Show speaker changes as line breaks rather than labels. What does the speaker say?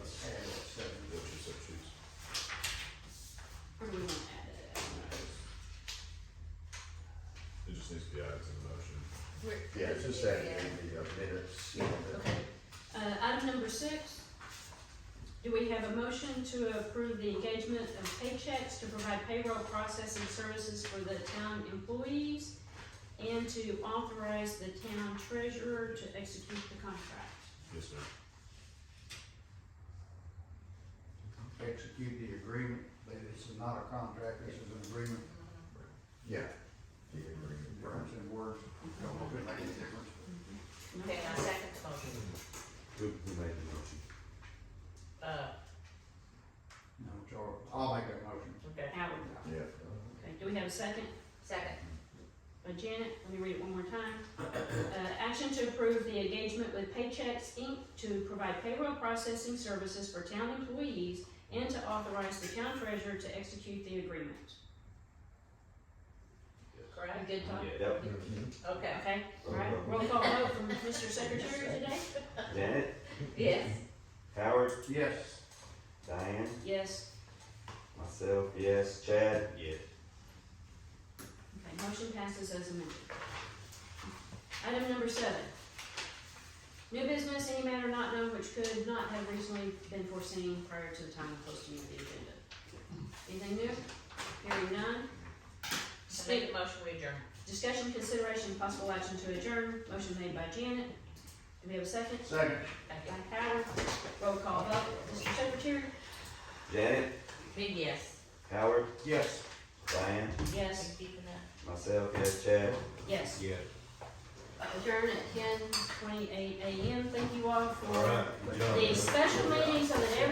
setting in the uh, minutes.
Yeah, okay. Uh, item number six, do we have a motion to approve the engagement of paychecks to provide payroll processing services for the town employees and to authorize the town treasurer to execute the contract?
Yes, sir.
execute the agreement, but this is not a contract, this is an agreement,
Yeah. The agreement, right.
difference in words, don't look at any difference.
Okay, and I second the motion.
Who, who made the motion?
Uh,
No, Charles, I'll make that motion.
okay,
Howard,
Yeah.
okay, do we have a second?
second,
by Janet, let me read it one more time. Uh, action to approve the engagement with Paychex Inc. to provide payroll processing services for town employees and to authorize the town treasurer to execute the agreement. You
correct?
good, Todd?
Yep.
Okay,
Okay, all right, roll call vote from Mr. Secretary today?
Janet,
yes,
Howard,
Yes,
Diane,
Yes,
myself, yes, Chad. Yes.
okay, motion passes as amended. Item number seven. New business, any matter not known which could not have reasonably been foreseen prior to the time of posting of the agenda. Anything new? Hearing none.
I make a motion, we adjourn.
Discussion, consideration, possible action to adjourn, motion made by Janet. Do we have a second?
second.
Thank
By
you.
Howard, roll call vote, Mr. Secretary?
Janet,
Big yes.
Howard,
Yes.
Diane,
Yes.
Keeping that.
myself, yes, Chad.
Yes.
Yeah.
Adjourn at ten twenty-eight AM, thank you all
All right.
for
Good job.
the special meetings of